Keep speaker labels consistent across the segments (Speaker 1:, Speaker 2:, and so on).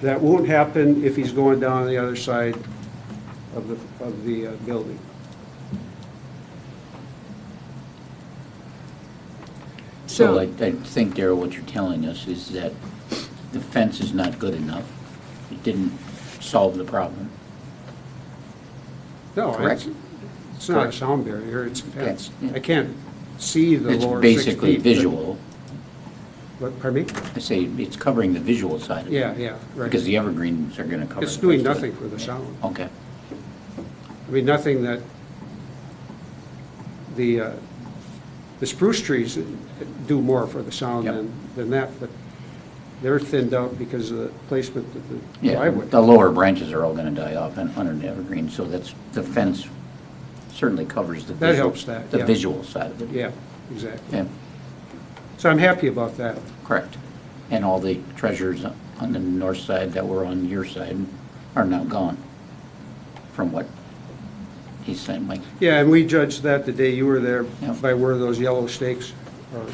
Speaker 1: That won't happen if he's going down the other side of the, of the uh, building.
Speaker 2: So
Speaker 3: So-
Speaker 2: I, I think, Daryl, what you're telling us is that the fence is not good enough. It didn't solve the problem.
Speaker 1: No, it's,
Speaker 2: Correct.
Speaker 1: it's not a
Speaker 2: Correct.
Speaker 1: sound barrier, it's a fence.
Speaker 2: yeah.
Speaker 1: I can't see the
Speaker 2: It's
Speaker 1: lower six feet.
Speaker 2: basically
Speaker 1: but-
Speaker 2: visual.
Speaker 1: What, pardon me?
Speaker 2: I say it's covering the visual side of it.
Speaker 1: Yeah, yeah, right.
Speaker 2: Because the evergreens are gonna cover.
Speaker 1: It's
Speaker 2: the
Speaker 1: doing
Speaker 2: rest of it.
Speaker 1: nothing for the sound.
Speaker 2: Okay,
Speaker 1: I mean, nothing that, the, uh, the spruce trees do more for the sound
Speaker 2: Yep.
Speaker 1: than, than that, but they're thinned out because of the placement of the
Speaker 2: yeah,
Speaker 1: driveway.
Speaker 2: the lower branches are all gonna die off and under the evergreen, so that's, the fence certainly covers the.
Speaker 1: That
Speaker 2: visual-
Speaker 1: helps that,
Speaker 2: The
Speaker 1: yeah.
Speaker 2: visual side of it.
Speaker 1: Yeah, exactly.
Speaker 2: Yeah,
Speaker 1: So I'm happy about that.
Speaker 2: correct. And all the treasures on the north side that were on your side are now gone, from what he's saying, Mike.
Speaker 1: Yeah, and we judged that the day you were there
Speaker 2: Yep.
Speaker 1: by where those yellow stakes are,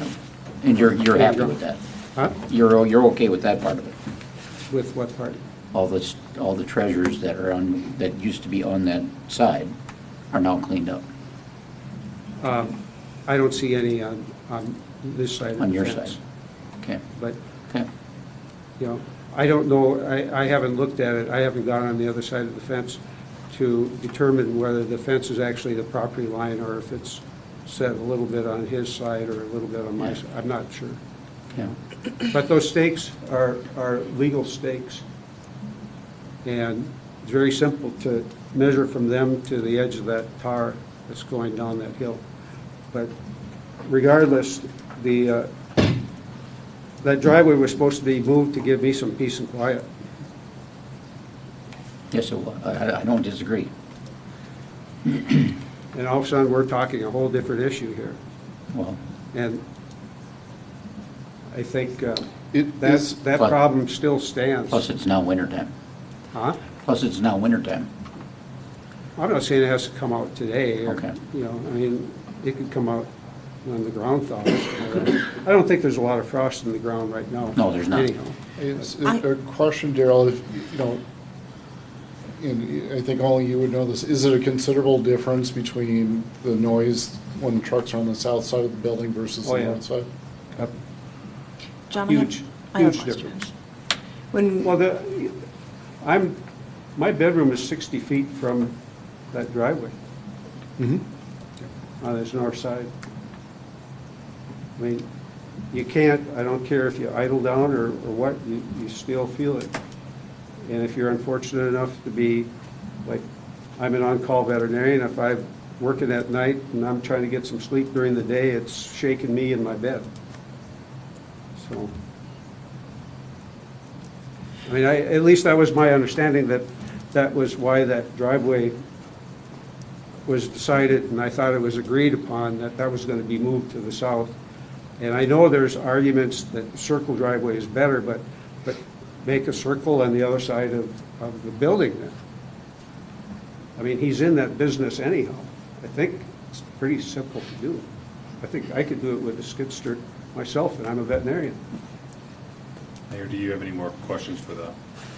Speaker 2: And you're, you're
Speaker 1: Yeah,
Speaker 2: happy
Speaker 1: yeah.
Speaker 2: with that?
Speaker 1: huh?
Speaker 2: You're, o- you're okay with that part of it?
Speaker 1: With what part?
Speaker 2: All this, all the treasures that are on, that used to be on that side are now cleaned up?
Speaker 1: Um, I don't see any on, on this side of the
Speaker 2: On your
Speaker 1: fence.
Speaker 2: side? Okay,
Speaker 1: But
Speaker 2: okay,
Speaker 1: you know, I don't know, I, I haven't looked at it, I haven't gone on the other side of the fence to determine whether the fence is actually the property line or if it's set a little bit on his side or a little bit on my
Speaker 2: Yeah.
Speaker 1: side, I'm not sure.
Speaker 2: yeah,
Speaker 1: But those stakes are, are legal stakes. And it's very simple to measure from them to the edge of that tar that's going down that hill. But regardless, the, uh, that driveway was supposed to be moved to give me some peace and quiet.
Speaker 2: yes, it wa- I, I- I don't disagree.
Speaker 1: And all of a sudden, we're talking a whole different issue here.
Speaker 2: Well,
Speaker 1: And I think uh,
Speaker 3: It
Speaker 1: that,
Speaker 3: is,
Speaker 1: that
Speaker 2: Plus-
Speaker 1: problem still stands.
Speaker 2: plus it's now wintertime,
Speaker 1: Huh?
Speaker 2: plus it's now wintertime,
Speaker 1: I'm not saying it has to come out today. or,
Speaker 2: Okay.
Speaker 1: You know, I mean, it could come out when the ground thaws. I don't think there's a lot of frost in the ground right now.
Speaker 2: No, there's not.
Speaker 1: Anyhow,
Speaker 3: it's
Speaker 4: I-
Speaker 3: a a question, Daryl, if, you know, and I think only you would know this, is it a considerable difference between the noise when trucks are on the south side of the building versus
Speaker 1: Oh,
Speaker 3: the
Speaker 1: yeah.
Speaker 3: north side?
Speaker 1: Yep.
Speaker 4: John, I have-
Speaker 1: Huge,
Speaker 4: I have a
Speaker 1: huge
Speaker 4: question.
Speaker 1: difference. Well,
Speaker 4: When,
Speaker 1: the, I'm, my bedroom is 60 feet from that driveway on this north side. I mean, you can't, I don't care if you idle down or, or what, you, you still feel it. And if you're unfortunate enough to be, like, I'm an on-call veterinarian, if I'm working at night and I'm trying to get some sleep during the day, it's shaking me in my bed. So. I mean, I, at least that was my understanding, that that was why that driveway was decided, and I thought it was agreed upon, that that was going to be moved to the south. And I know there's arguments that circle driveway is better, but, but make a circle on the other side of, of the building then. I mean, he's in that business anyhow. I think it's pretty simple to do. I think I could do it with a skid steer myself, and I'm a veterinarian.
Speaker 5: Mayor, do you have any more questions for the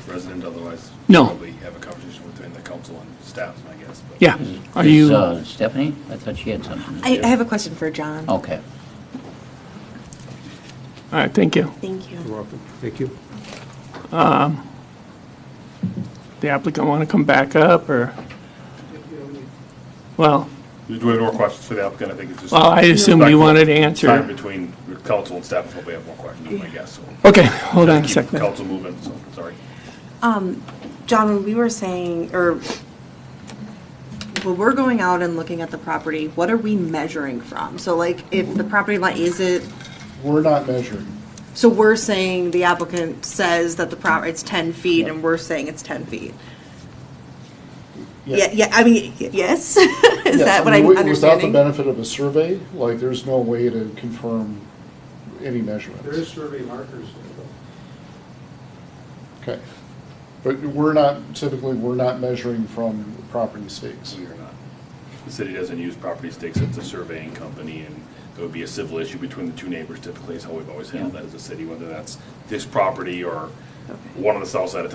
Speaker 5: resident? Otherwise,
Speaker 6: No.
Speaker 5: probably have a conversation between the council and staff, I guess. but-
Speaker 6: Yeah, are
Speaker 2: is,
Speaker 6: you,
Speaker 2: uh, Stephanie, I thought she had something to
Speaker 4: I,
Speaker 2: say.
Speaker 4: I have a question for John.
Speaker 2: Okay,
Speaker 6: all right, thank you.
Speaker 4: Thank you.
Speaker 1: welcome. Thank you.
Speaker 6: The applicant want to come back up, or? Well,
Speaker 5: Do you have any more questions for the applicant? I think it's just.
Speaker 6: well, I assumed you wanted to
Speaker 5: Time
Speaker 6: answer.
Speaker 5: between the council and staff, probably have more questions, I guess. so.
Speaker 6: Okay, hold on a
Speaker 5: Keep
Speaker 6: second.
Speaker 5: Council moving, so, sorry.
Speaker 4: John, when we were saying, or when we're going out and looking at the property, what are we measuring from? So like, if the property line, is it,
Speaker 3: We're not measuring.
Speaker 4: so we're saying the applicant says that the prop, it's ten feet, and we're saying it's ten feet? Yeah, yeah, I mean, y- yes? Is
Speaker 3: Yes,
Speaker 4: that what
Speaker 3: mean,
Speaker 4: I'm
Speaker 3: wi- Without the
Speaker 4: understanding?
Speaker 3: benefit of a survey, like, there's no way to confirm any measurements.
Speaker 1: survey markers there, though.
Speaker 3: Okay. But we're not, typically, we're not measuring from property stakes.
Speaker 5: We are not. The city doesn't use property stakes, it's a surveying company, and there would be a civil issue between the two neighbors typically, is how we've always handled that as a city, whether that's this property or one on the south side of